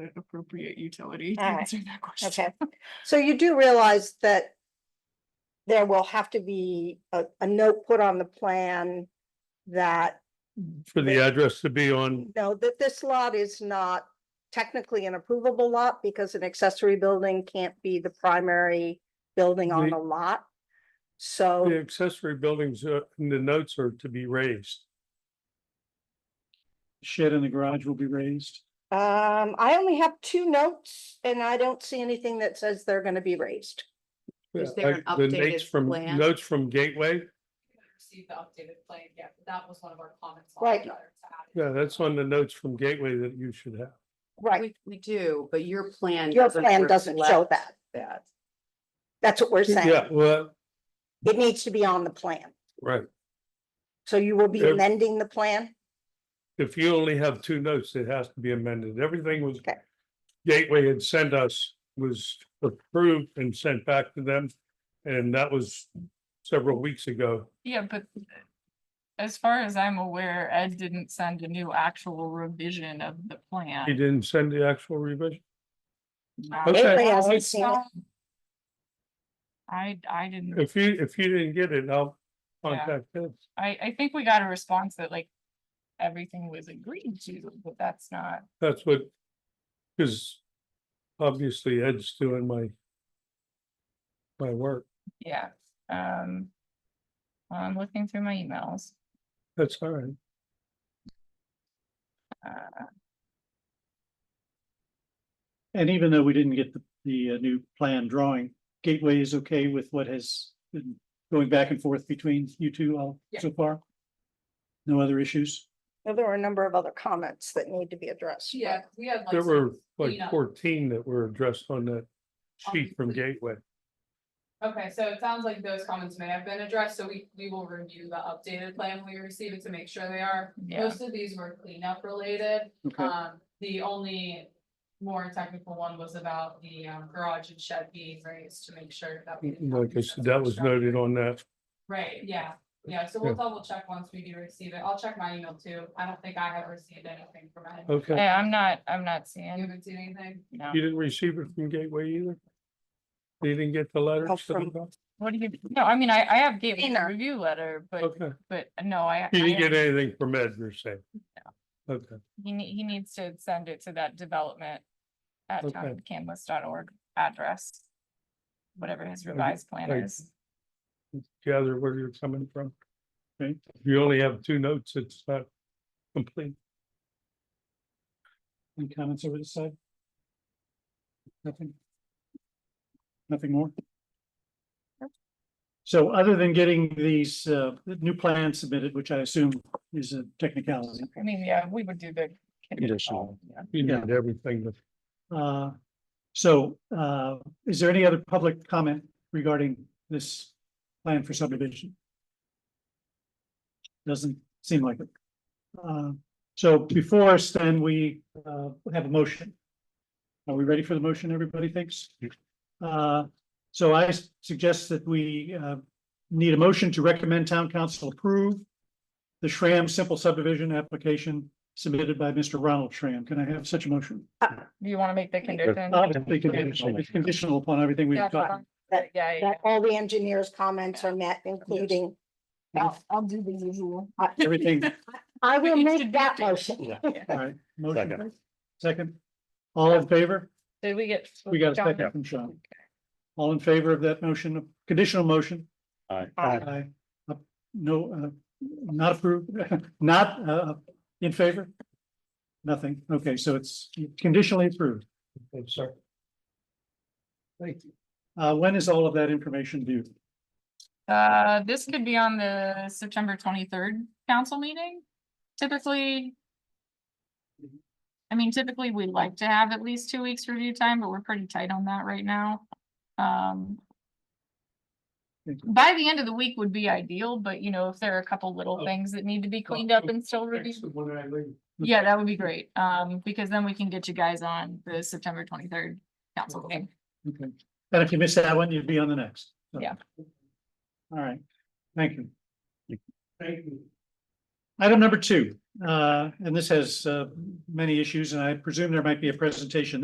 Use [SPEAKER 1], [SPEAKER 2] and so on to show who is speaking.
[SPEAKER 1] an appropriate utility to
[SPEAKER 2] All right.
[SPEAKER 1] answer that question.
[SPEAKER 2] Okay, so you do realize that there will have to be a, a note put on the plan that,
[SPEAKER 3] for the address to be on,
[SPEAKER 2] no, that this lot is not technically an approvable lot because an accessory building can't be the primary building on
[SPEAKER 3] The-
[SPEAKER 2] the lot.
[SPEAKER 3] the
[SPEAKER 2] So,
[SPEAKER 3] accessory buildings, uh, and the notes are to be raised.
[SPEAKER 4] Shed in the garage will be raised.
[SPEAKER 2] um, I only have two notes and I don't see anything that says they're gonna be raised.
[SPEAKER 5] Is there an
[SPEAKER 3] Like the
[SPEAKER 5] updated
[SPEAKER 3] notes from-
[SPEAKER 5] plan?
[SPEAKER 3] Notes from Gateway,
[SPEAKER 6] Received the updated plan, yeah, but that was one of our comments. on
[SPEAKER 2] Right.
[SPEAKER 6] the letter to add it.
[SPEAKER 3] yeah, that's on the notes from Gateway that you should have.
[SPEAKER 2] Right,
[SPEAKER 5] We, we do, but your plan.
[SPEAKER 2] Your plan doesn't show
[SPEAKER 5] reflect
[SPEAKER 2] that.
[SPEAKER 5] That.
[SPEAKER 2] that's what we're
[SPEAKER 3] Yeah,
[SPEAKER 2] saying.
[SPEAKER 3] well,
[SPEAKER 2] It needs to be on the plan.
[SPEAKER 3] right,
[SPEAKER 2] So you will be
[SPEAKER 3] Yeah.
[SPEAKER 2] amending the plan?
[SPEAKER 3] if you only have two notes, it has to be amended, everything was.
[SPEAKER 2] Okay.
[SPEAKER 3] Gateway had sent us was approved and sent back to them, and that was several weeks ago.
[SPEAKER 1] Yeah, but as far as I'm aware, Ed didn't send a new actual revision of the
[SPEAKER 3] He
[SPEAKER 1] plan.
[SPEAKER 3] didn't send the actual revision,
[SPEAKER 1] Um,
[SPEAKER 3] Okay.
[SPEAKER 2] Gateway
[SPEAKER 1] I
[SPEAKER 2] hasn't
[SPEAKER 1] was
[SPEAKER 2] seen it.
[SPEAKER 1] told- I, I didn't,
[SPEAKER 3] if you, if you didn't get it, I'll
[SPEAKER 1] Yeah.
[SPEAKER 3] contact them.
[SPEAKER 1] I, I think we got a response that like everything was agreed to, but that's not.
[SPEAKER 3] That's what, because obviously Ed's doing my my work.
[SPEAKER 1] Yeah, um. I'm looking through my emails,
[SPEAKER 3] That's all right.
[SPEAKER 1] uh,
[SPEAKER 4] And even though we didn't get the, the uh, new plan drawing, Gateway is okay with what has been going back and forth between you two all so far? No other issues?
[SPEAKER 2] Well, There were a number of other comments that need to be addressed. but-
[SPEAKER 6] Yeah, we had like.
[SPEAKER 3] There were like
[SPEAKER 6] cleanup.
[SPEAKER 3] fourteen that were addressed on that sheet from
[SPEAKER 6] Obviously.
[SPEAKER 3] Gateway.
[SPEAKER 6] Okay, so it sounds like those comments may have been addressed, so we, we will review the updated plan we received to make sure they are.
[SPEAKER 1] yeah,
[SPEAKER 6] Most of these were cleanup related,
[SPEAKER 4] Okay,
[SPEAKER 6] um, the only more technical one was about the um, garage and shed being raised to make sure that. we didn't have
[SPEAKER 3] Like I
[SPEAKER 6] any
[SPEAKER 3] said, that was
[SPEAKER 6] structure.
[SPEAKER 3] noted on that.
[SPEAKER 6] Right, yeah, yeah, so we'll double check once we do receive it, I'll check my email too, I don't think I have received anything from
[SPEAKER 3] Uh,
[SPEAKER 6] Ed.
[SPEAKER 3] Okay,
[SPEAKER 1] yeah, I'm not, I'm not
[SPEAKER 6] You
[SPEAKER 1] seeing,
[SPEAKER 6] haven't seen anything?
[SPEAKER 1] no,
[SPEAKER 3] you didn't receive it from Gateway either? You didn't get the letter?
[SPEAKER 2] Oh,
[SPEAKER 3] so-
[SPEAKER 2] from-
[SPEAKER 1] what do you, no, I mean, I, I have gave a
[SPEAKER 2] Cleaner.
[SPEAKER 1] review letter, but,
[SPEAKER 3] Okay,
[SPEAKER 1] but no, I.
[SPEAKER 3] you
[SPEAKER 1] I
[SPEAKER 3] didn't
[SPEAKER 1] haven't-
[SPEAKER 3] get anything from Ed, you're saying? Okay,
[SPEAKER 1] He nee- he needs to send it to that development at
[SPEAKER 3] Okay.
[SPEAKER 1] towncanvas.org address. Whatever his revised plan
[SPEAKER 3] Right.
[SPEAKER 1] is.
[SPEAKER 3] gather where you're coming from.
[SPEAKER 4] Okay.
[SPEAKER 3] If you only have two notes, it's not complete.
[SPEAKER 4] any comments over this side? Nothing? Nothing more? So other than getting these, uh, new plans submitted, which I assume is a technicality,
[SPEAKER 1] I mean, yeah, we would do the.
[SPEAKER 3] Conditional.
[SPEAKER 1] Yeah.
[SPEAKER 3] You
[SPEAKER 4] Yeah.
[SPEAKER 3] need everything to
[SPEAKER 4] Uh, So uh, is there any other public comment regarding this plan for subdivision? Doesn't seem like it. Uh, So before us, then, we uh, have a motion. Are we ready for the motion, everybody thinks? Uh, So I s- suggest that we uh, need a motion to recommend town council approve the Shram simple subdivision application submitted by Mr. Ronald Shram. Can I have such a motion?
[SPEAKER 1] Do you want to make the condition?
[SPEAKER 4] Obviously, conditional, it's conditional upon everything Uh, we've
[SPEAKER 1] That's
[SPEAKER 4] got.
[SPEAKER 1] fine. Yeah, yeah, yeah.
[SPEAKER 2] That all the engineers' comments are met, including,
[SPEAKER 1] I'll I'll do the usual.
[SPEAKER 4] Everything,
[SPEAKER 2] I
[SPEAKER 1] But
[SPEAKER 2] will
[SPEAKER 1] you
[SPEAKER 2] make
[SPEAKER 1] should
[SPEAKER 2] that
[SPEAKER 1] do it.
[SPEAKER 2] motion.
[SPEAKER 4] all right. motion,
[SPEAKER 3] Second.
[SPEAKER 4] Second, all in favor?
[SPEAKER 1] Did we get?
[SPEAKER 4] We got a
[SPEAKER 1] John?
[SPEAKER 4] second from Sean. All in favor of that motion, conditional motion? Aye. Uh, No, uh, not approved, not, uh, in favor? Nothing. Okay, so it's conditionally approved.
[SPEAKER 3] I'm sorry. Thank you.
[SPEAKER 4] Uh, when is all of that information due?
[SPEAKER 1] Uh, this could be on the September twenty-third council meeting. Typically.
[SPEAKER 3] Mm-hmm.
[SPEAKER 1] I mean, typically we like to have at least two weeks review time, but we're pretty tight on that right now. Um.
[SPEAKER 4] Thank
[SPEAKER 3] Mm-hmm.
[SPEAKER 1] By the end of the week would be ideal, but you know, if there are a couple little
[SPEAKER 3] Oh.
[SPEAKER 1] things that need to be cleaned up and still
[SPEAKER 3] Thanks,
[SPEAKER 1] reviewed.
[SPEAKER 3] when I leave.
[SPEAKER 1] Yeah, that would be great, um, because then we can get you guys on the September twenty-third council meeting.
[SPEAKER 4] Okay, and if you miss that one, you'd be on the next. so.
[SPEAKER 1] Yeah.
[SPEAKER 4] All right, thank you.
[SPEAKER 3] Thank you.
[SPEAKER 4] Item number two, uh, and this has, uh, many issues, and I presume there might be a presentation